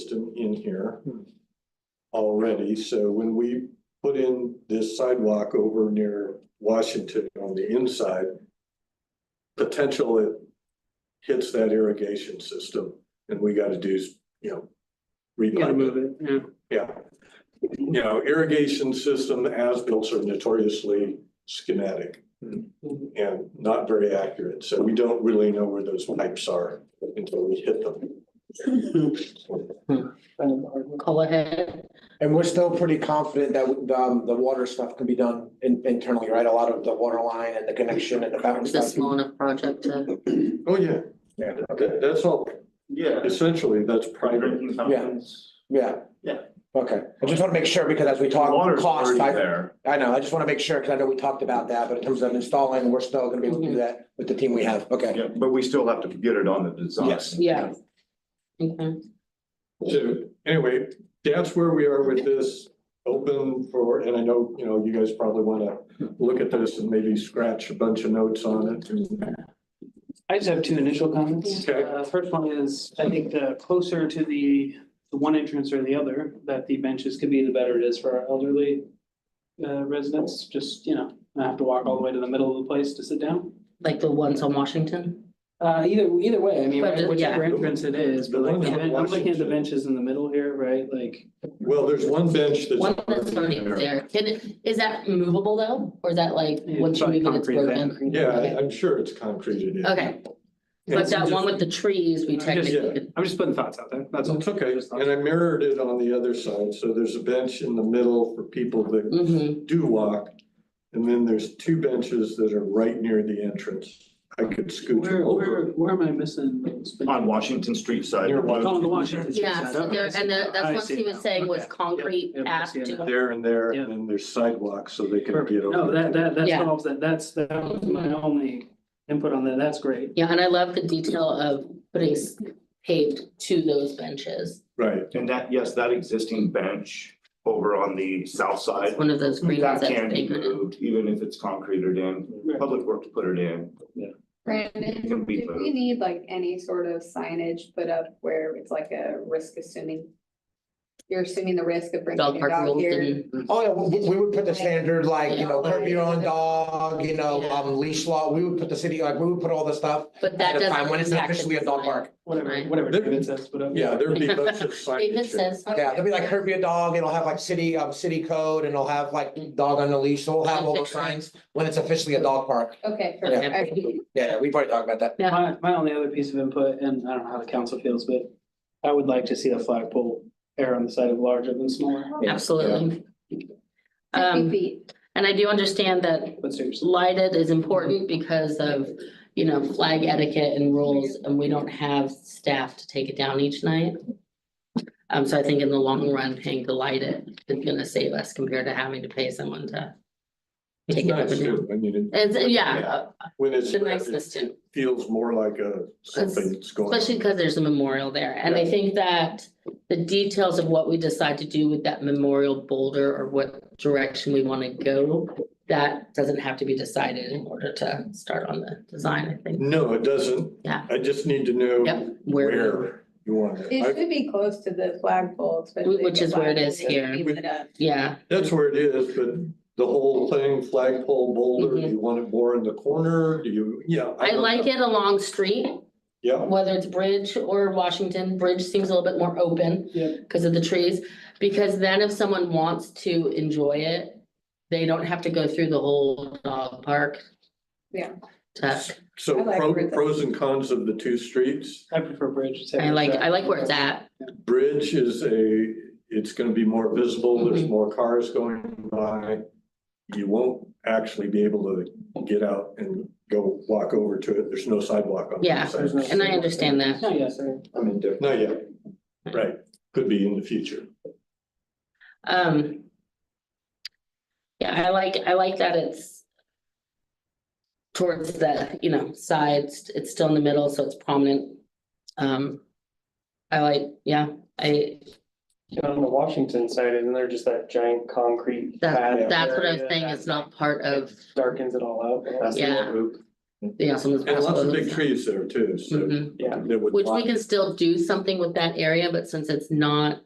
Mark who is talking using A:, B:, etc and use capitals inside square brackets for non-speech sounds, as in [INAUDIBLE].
A: here already, so when we put in this sidewalk over near Washington on the inside, potential it hits that irrigation system, and we gotta do, you know, repipe
B: Gotta
A: it.
B: move it, yeah.
A: Yeah. You know, irrigation system as built are notoriously schematic and not very accurate, so we don't really know where those pipes are until we hit them.
C: Go ahead.
D: And we're still pretty confident that um, the water stuff can be done in- internally, right? A lot of the water line and the connection and the fountain
C: It's a
D: stuff.
C: small enough project to,
A: [LAUGHS] Oh, yeah,
D: Yeah.
A: That- that's all,
E: Yeah.
A: essentially, that's private.
D: Yeah.
E: Yeah.
D: Okay. I just want to make sure because as we talk
E: Water's
D: cost,
E: already
D: I,
E: there.
D: I know, I just want to make sure because I know we talked about that, but in terms of installing, we're still going to be able to
C: Mm-hmm.
D: do that with the team we have. Okay.
E: Yeah, but we still have to get it on the design.
D: Yes.
C: yeah. Okay,
A: So anyway, that's where we are with this open for, and I know, you know, you guys probably wanna look at this and maybe scratch a bunch of notes on it.
B: I just have two initial comments.
A: Okay.
B: Uh, First one is, I think the closer to the, the one entrance or the other, that the benches could be, the better it is for our elderly uh, residents, just, you know, not have to walk all the way to the middle of the place to sit down.
C: like the ones on Washington?
B: Uh, either, either way, I mean,
C: But, uh,
B: whichever
A: yeah.
B: entrance it is, but like, I'm looking at the benches in the middle here, right, like,
A: Well, there's one bench that's.
C: One that's already there, can, it- is that movable though, or is that like,
B: Yeah,
C: once you
B: it's
C: move it, it's
B: concrete
C: broken?
A: Yeah, I-
C: Okay.
A: I'm sure it's concreted in.
C: Okay, but that one with the trees, we
B: I'm just-
C: technically, could-
B: I'm just putting thoughts out there, that's all.
A: It's okay, and I mirrored it on the other side, so there's a bench in the middle for people that
C: mhm,
A: do walk. And then there's two benches that are right near the entrance. I could scoot them
B: Where, where,
A: over.
B: where am I missing? those benches?
E: On Washington Street side.
A: Near Washington.
B: Oh, the Washington. Street
C: yeah,
B: side,
C: so
B: okay.
C: there, and the-
B: I
C: that's what
B: see
C: he was
B: now,
C: saying was
B: okay.
C: concrete
B: Yep, yep, I
C: aft
B: see it
C: to.
A: There and there,
B: Yeah.
A: and then there's sidewalks so they can
B: Perfect.
A: get over.
B: No, that, that, that
C: Yeah.
B: solves that. That's, that was my only input on that. That's great.
C: Yeah, and I love the detail of putting s- paved to those benches,
A: Right,
E: And that, yes, that existing bench over on the south
C: it's
E: side,
C: one of those green ones
E: that
C: that's
E: can be
C: bigger.
E: moved, even if it's concreted in.
B: Right.
E: Public Works put it in. Can
F: Brandon,
E: be
F: do we
E: moved.
F: need like any sort of signage put up where it's like a risk assuming? You're assuming the risk of bringing
C: Dog
F: your
C: park
F: dog
C: rules
F: here.
C: and,
D: Oh, yeah, we, we would put the standard like, you know, curb your own dog, you know, um, leash law. We would put the city, like, we would put all the stuff.
C: but
D: at
C: that
D: a
C: doesn't.
D: time When it's not
C: impact the
D: officially a dog
C: design.
D: park.
B: Whatever,
C: Right.
B: whatever
A: There-
B: David says, uh, whatever.
A: yeah, there'd be
C: [LAUGHS]
A: bunch of signage.
C: David says. "Oh,
D: Yeah, there'll be like curb your dog, it'll have like city, um, city code and it'll have like dog on the leash, so we'll have all those signs when it's officially a dog park.
F: Okay,
C: Yeah.
F: perfect. Okay.
D: Yeah, we've already talked about that.
B: My, my only other piece of input, and I don't know how the council feels, but I would like to see a flagpole err on the side of larger than smaller,
C: Absolutely.
F: Fifty
C: Um,
F: feet.
C: and I do understand that
B: but seriously.
C: lighted is important because of, you know, flag etiquette and rules, and we don't have staff to take it down each night. Um, so I think in the long run, paying to light it is gonna save us compared to having to pay someone to.
A: It's
C: Take it up
A: nice
C: and down.
A: too, I mean, it-
C: It's, yeah,
A: when it's,
C: the niceness
A: it
C: too.
A: feels more like a something that's going. on.
C: Especially because there's a memorial there, and I think that the details of what we decide to do with that memorial boulder or what direction we wanna go. That doesn't have to be decided in order to start on the design, I think,
A: No, it doesn't.
C: Yeah.
A: I just need to know
C: yep, where,
A: where you want it.
F: It
A: I-
F: should be close to the flagpole, especially. if
C: Which
F: the
C: is where it is
F: flagpole's gonna
C: here.
F: be lit up.
C: yeah,
A: That's where it is, but the whole thing, flagpole boulder, do you want it more in the corner? Do you, yeah.
C: Mm-hmm. I
A: don't
C: like
A: know.
C: it along street.
A: Yeah,
C: Whether it's Bridge or Washington, Bridge seems a little bit more open.
B: Yeah.
C: Cause of the trees, because then if someone wants to enjoy it, they don't have to go through the whole dog park.
F: Yeah.
C: To
A: so
F: I like
A: pro-
F: where the-
A: pros and cons of the two streets.
B: I prefer bridge.
C: I like, I like where it's at.
A: Bridge is a, it's gonna be more visible, there's
C: Mm-hmm.
A: more cars going by. You won't actually be able to get out and go walk over to it, there's no sidewalk on. the
C: Yeah,
A: side.
B: There's no-
C: And I understand that.
B: No, yes, sir.
A: I mean, there- not yet, right, could be in the future.
C: Um. Yeah, I like, I like that it's. Towards the, you know, sides, it's still in the middle, so it's prominent. Um. I like, yeah, I,
G: On the Washington side, isn't there just that giant concrete
C: that,
G: pad?
C: that's what I was
G: area
C: saying, it's not part of,
G: that Darkens it all out.
C: yeah. Yeah, someone's.
A: And lots of big trees there too, so.
C: Mhm.
G: Yeah.
A: that would
C: Which we
A: block-
C: can still do something with that area, but since it's not